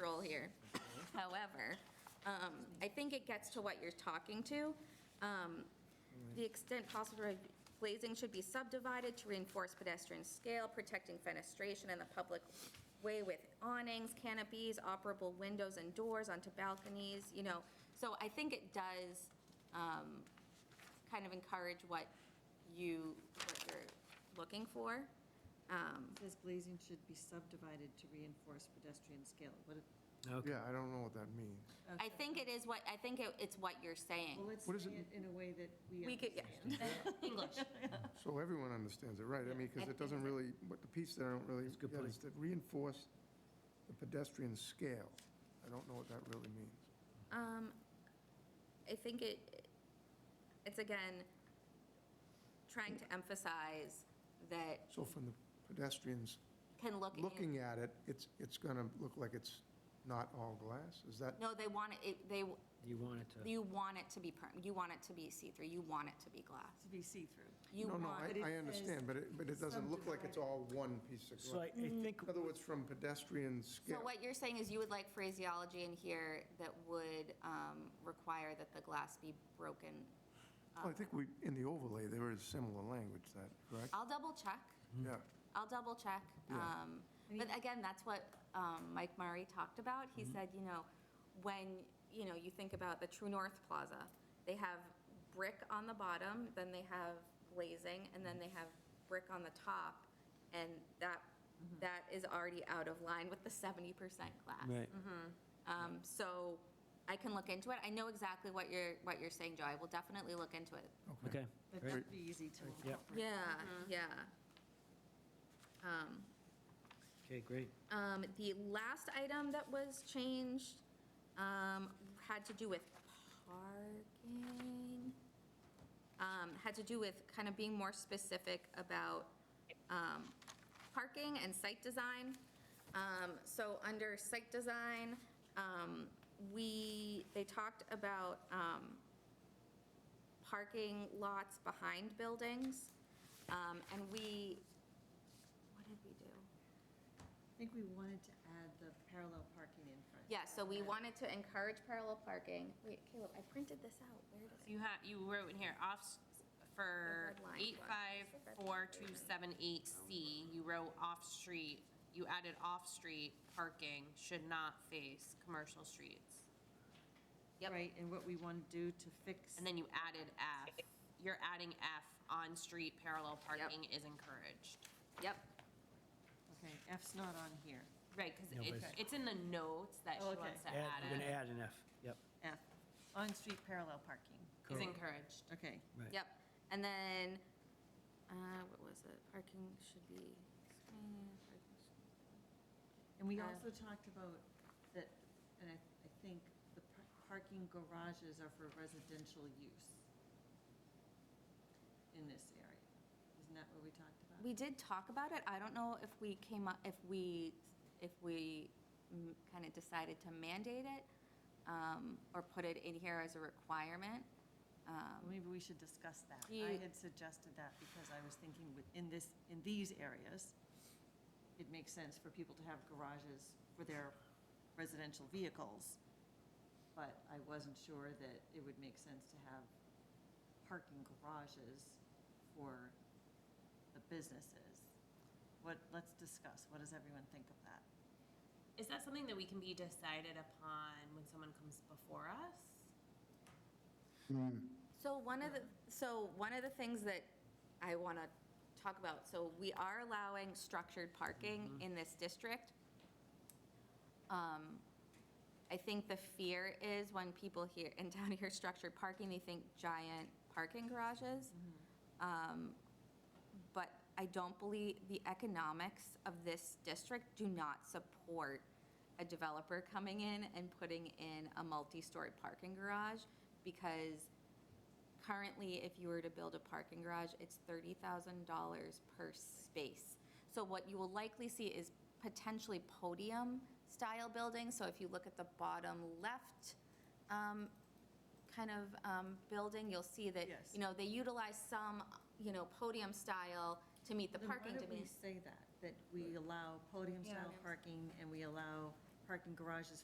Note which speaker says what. Speaker 1: role here. However, um, I think it gets to what you're talking to. Um, The extent possible, glazing should be subdivided to reinforce pedestrian scale, protecting fenestration in the public way with awnings, canopies, operable windows and doors onto balconies, you know. So I think it does um, kind of encourage what you, what you're looking for. Um,
Speaker 2: It Says glazing should be subdivided to reinforce pedestrian scale. What it- uh,
Speaker 3: Okay.
Speaker 4: Yeah, I don't know what that means.
Speaker 1: I think it is what, I think it- it's what you're saying.
Speaker 2: Well, let's
Speaker 4: What is
Speaker 2: say
Speaker 4: it-
Speaker 2: it in a way that we.
Speaker 1: We could, yeah. English.
Speaker 4: So everyone understands it, right? I mean, because it doesn't really, but the piece that I don't really
Speaker 3: That's a good
Speaker 4: get
Speaker 3: point.
Speaker 4: is to reinforce the pedestrian scale. I don't know what that really means.
Speaker 1: Um, I think it, it's again, trying to emphasize that
Speaker 4: So from the pedestrians
Speaker 1: can look.
Speaker 4: looking at it, it's, it's going to look like it's not all glass? Is that,
Speaker 1: No, they want it, it- they,
Speaker 3: You want it to,
Speaker 1: you want it to be, perm- you want it to be see-through, you want it to be glass.
Speaker 2: To be see-through.
Speaker 1: You
Speaker 4: no, no,
Speaker 1: want,
Speaker 2: But it
Speaker 4: I, I
Speaker 2: says
Speaker 4: understand, but it, but it doesn't look like it's all one piece of
Speaker 3: so I
Speaker 4: glass.
Speaker 3: I think,
Speaker 4: In other words, from pedestrian
Speaker 1: so
Speaker 4: scale.
Speaker 1: what you're saying is you would like phraseology in here that would um, require that the glass be broken. Um,
Speaker 4: Well, I think we, in the overlay, there is similar language to that, correct?
Speaker 1: I'll double check,
Speaker 3: Hmm.
Speaker 4: Yeah.
Speaker 1: I'll double check.
Speaker 4: Yeah.
Speaker 1: um, But again, that's what um, Mike Murray talked about. He said, you know, when, you know, you think about the True North Plaza, they have brick on the bottom, then they have glazing, and then they have brick on the top, and that, that is already out of line with the 70% glass.
Speaker 3: right,
Speaker 1: Um, So I can look into it. I know exactly what you're, what you're saying, Joe. I will definitely look into it.
Speaker 3: okay.
Speaker 2: That
Speaker 3: great.
Speaker 2: should be easy to
Speaker 3: Yep.
Speaker 2: incorporate.
Speaker 1: Yeah, yeah. Um,
Speaker 3: Okay, great.
Speaker 1: Um, The last item that was changed um, had to do with parking, um, had to do with kind of being more specific about um, parking and site design. Um, So under site design, um, we, they talked about um, parking lots behind buildings, um, and we, what did we do?
Speaker 2: I think we wanted to add the parallel parking in front.
Speaker 1: Yeah, so we wanted to encourage parallel parking. Wait, Caleb, I printed this out. Where did it?
Speaker 5: You have, you wrote in here, off, s- for
Speaker 1: The red line
Speaker 5: eight five four two seven eight C, you wrote off-street, you added off-street parking should not face commercial streets.
Speaker 1: Yep.
Speaker 2: Right, and what we want to do to fix.
Speaker 5: And then you added F, you're adding F, on-street parallel parking is encouraged.
Speaker 1: Yep.
Speaker 2: Okay, F's not on here.
Speaker 5: Right, because
Speaker 3: No, but
Speaker 5: it's,
Speaker 3: it's-
Speaker 5: it's in the notes that she
Speaker 2: Oh, okay.
Speaker 5: wants to
Speaker 3: Add- We're
Speaker 5: add
Speaker 3: going to
Speaker 5: it,
Speaker 3: add an F, yep,
Speaker 2: F, on-street parallel parking.
Speaker 5: is
Speaker 3: correct.
Speaker 5: encouraged.
Speaker 2: Okay.
Speaker 3: right.
Speaker 1: Yep. And then, uh, what was it? Parking should be.
Speaker 2: And we
Speaker 1: Uh,
Speaker 2: also talked about that, and I, I think the par- parking garages are for residential use in this area. Isn't that what we talked about?
Speaker 1: We did talk about it. I don't know if we came up, if we, if we kind of decided to mandate it um, or put it in here as a requirement. Um,
Speaker 2: Well, Uh, Maybe we should discuss that.
Speaker 1: You-
Speaker 2: I had suggested that because I was thinking within this, in these areas, it makes sense for people to have garages for their residential vehicles. But I wasn't sure that it would make sense to have parking garages for the businesses. What, let's discuss. What does everyone think of that?
Speaker 5: Is that something that we can be decided upon when someone comes before us?
Speaker 1: So one of the, so one of the things that I want to talk about, so we are allowing structured parking in this district. Um, I think the fear is when people here, in town hear structured parking, they think giant parking garages. Um, But I don't believe, the economics of this district do not support a developer coming in and putting in a multi-story parking garage because currently, if you were to build a parking garage, it's $30,000 per space. So what you will likely see is potentially podium-style buildings. So if you look at the bottom left um, kind of um, building, you'll see that,
Speaker 2: Yes.
Speaker 1: you know, they utilize some, you know, podium-style to meet the
Speaker 2: Then why
Speaker 1: parking
Speaker 2: don't we
Speaker 1: demand.
Speaker 2: say that, that we allow podium-style
Speaker 1: Yeah.
Speaker 2: parking and we allow parking garages